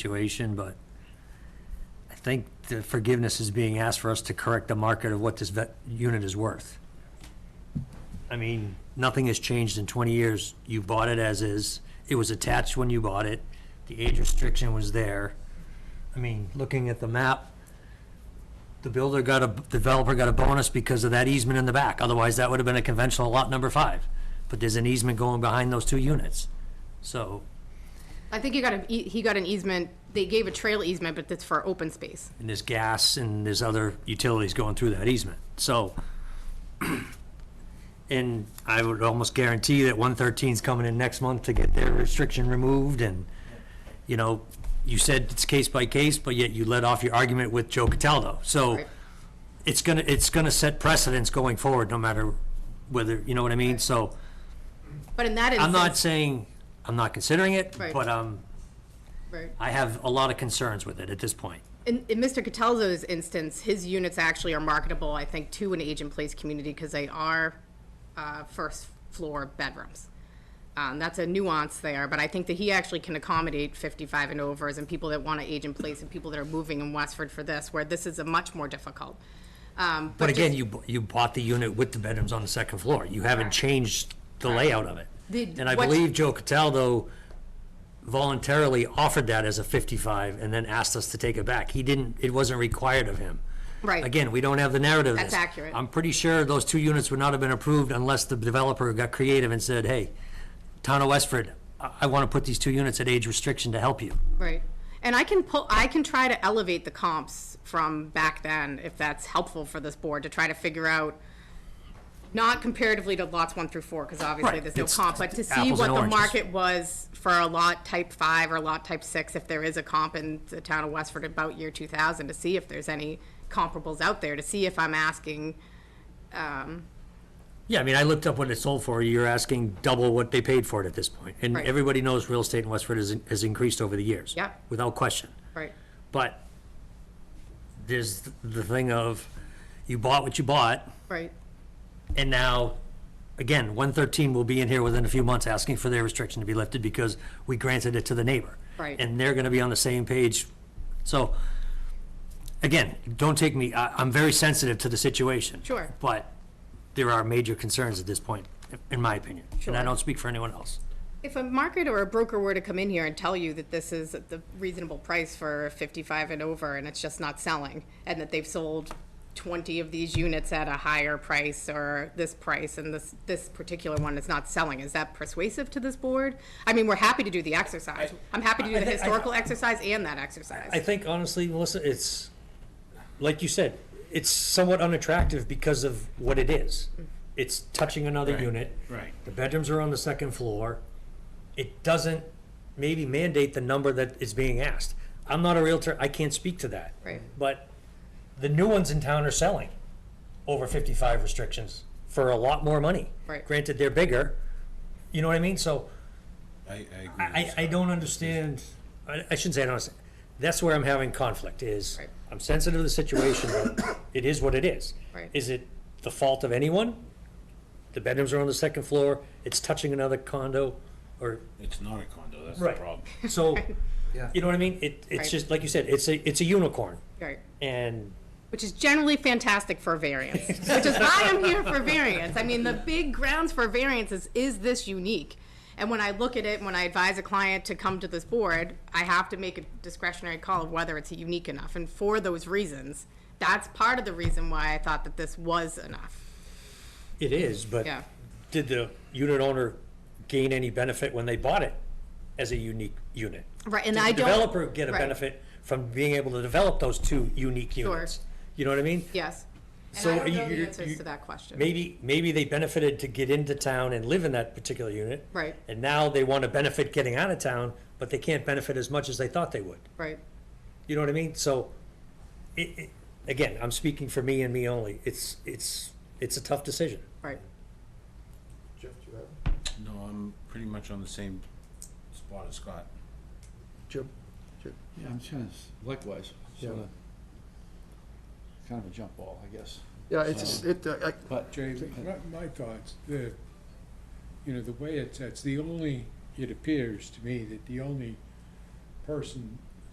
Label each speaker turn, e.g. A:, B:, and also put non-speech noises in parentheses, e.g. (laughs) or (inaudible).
A: situation, but I think the forgiveness is being asked for us to correct the market of what this vet, unit is worth. I mean, nothing has changed in 20 years. You bought it as is. It was attached when you bought it. The age restriction was there. I mean, looking at the map, the builder got a, developer got a bonus because of that easement in the back. Otherwise, that would have been a conventional lot number five. But there's an easement going behind those two units. So,
B: I think he got a, he got an easement, they gave a trail easement, but that's for open space.
A: and there's gas and there's other utilities going through that easement. So, (clears throat) and I would almost guarantee that 113's coming in next month to get their restriction removed and, you know, you said it's case by case, but yet you let off your argument with Joe Cataldo. So
B: Right.
A: it's gonna, it's gonna set precedents going forward, no matter whether, you know what I mean? So
B: But in that
A: I'm not
B: instance,
A: saying, I'm not considering it,
B: Right.
A: but, um,
B: right.
A: I have a lot of concerns with it at this point.
B: in, in Mr. Cataldo's instance, his units actually are marketable, I think, to an age-in-place community because they are uh, first-floor bedrooms. Um, That's a nuance there, but I think that he actually can accommodate 55 and overs and people that want to age in place and people that are moving in Westford for this, where this is a much more difficult. Um,
A: But again,
B: just-
A: you, bu- you bought the unit with the bedrooms on the second floor. You haven't changed the layout of it.
B: The-
A: And I
B: what-
A: believe Joe Cataldo voluntarily offered that as a 55 and then asked us to take it back. He didn't, it wasn't required of him.
B: Right.
A: Again, we don't have the narrative. of
B: That's
A: this.
B: accurate.
A: I'm pretty sure those two units would not have been approved unless the developer got creative and said, hey, Town of Westford, I, I want to put these two units at age restriction to help you.
B: Right. And I can pull, I can try to elevate the comps from back then, if that's helpful for this board, to try to figure out, not comparatively to lots one through four, because obviously
A: Right,
B: there's no
A: it's
B: comp, but to see
A: apples
B: what
A: and
B: the
A: oranges.
B: market was for a lot type five or a lot type six, if there is a comp in the town of Westford about year two thousand, to see if there's any comparables out there, to see if I'm asking,
A: Yeah, I mean, I looked up what it sold for. You're asking double what they paid for it at this point. And
B: Right.
A: everybody knows real estate in Westford has, has increased over the years.
B: Yeah.
A: Without question.
B: right,
A: But there's the thing of you bought what you bought
B: right,
A: and now, again, 113 will be in here within a few months asking for their restriction to be lifted because we granted it to the neighbor.
B: Right.
A: And they're going to be on the same page. So, again, don't take me, I, I'm very sensitive to the situation.
B: Sure.
A: But there are major concerns at this point, in my opinion. And I
B: Sure.
A: don't speak for anyone else.
B: If a market or a broker were to come in here and tell you that this is at the reasonable price for fifty-five and over, and it's just not selling, and that they've sold twenty of these units at a higher price or this price, and this, this particular one is not selling, is that persuasive to this board? I mean, we're happy to do the exercise. I'm happy to do
A: I- I
B: the
A: think- I-
B: historical exercise and that
A: I
B: exercise.
A: think honestly, Melissa, it's, like you said, it's somewhat unattractive because of what it is. It's touching another unit.
C: right.
A: The bedrooms are on the second floor. It doesn't maybe mandate the number that is being asked. I'm not a Realtor, I can't speak to that.
B: Right.
A: But the new ones in town are selling over fifty-five restrictions for a lot more money.
B: Right.
A: Granted, they're bigger, you know what I mean? So
C: I, I agree. with
A: I, I don't understand, I, I shouldn't say I don't understand, that's where I'm having conflict, is
B: Right.
A: I'm sensitive to the situation, but it is what it is.
B: Right.
A: Is it the fault of anyone? The bedrooms are on the second floor, it's touching another condo, or,
C: It's not a condo, that's the
A: Right.
C: problem.
B: (laughs)
A: so, you know what I mean? It,
B: Right.
A: it's just, like you said, it's a, it's a unicorn,
B: Right.
A: and
B: which is generally fantastic for variance, which is why I'm here for variance. I mean, the big grounds for variance is, is this unique? And when I look at it, when I advise a client to come to this board, I have to make a discretionary call of whether it's unique enough. And for those reasons, that's part of the reason why I thought that this was enough.
A: it is, but
B: Yeah.
A: did the unit owner gain any benefit when they bought it as a unique unit?
B: Right, and
A: Did the
B: I don't-
A: Developer get a
B: right.
A: benefit from being able to develop those two unique units? You know what I mean?
B: Yes. And
A: So
B: I don't
A: you-
B: know the
A: you-
B: answers
A: you-
B: to that question.
A: Maybe, maybe they benefited to get into town and live in that particular unit.
B: Right.
A: And now they want to benefit getting out of town, but they can't benefit as much as they thought they would.
B: Right.
A: You know what I mean? So, it, it, again, I'm speaking for me and me only. It's, it's, it's a tough decision.
B: Right.
D: Jeff, do you have?
C: No, I'm pretty much on the same spot as Scott.
D: Jim? Jim?
E: Yeah, I'm trying to, s- likewise,
D: Yeah.
E: sort of, kind of a jump ball, I guess.
D: Yeah, it's, it, uh, I-
E: But,
F: Jay, my- my thoughts, the, you know, the way it's, it's the only, it appears to me that the only person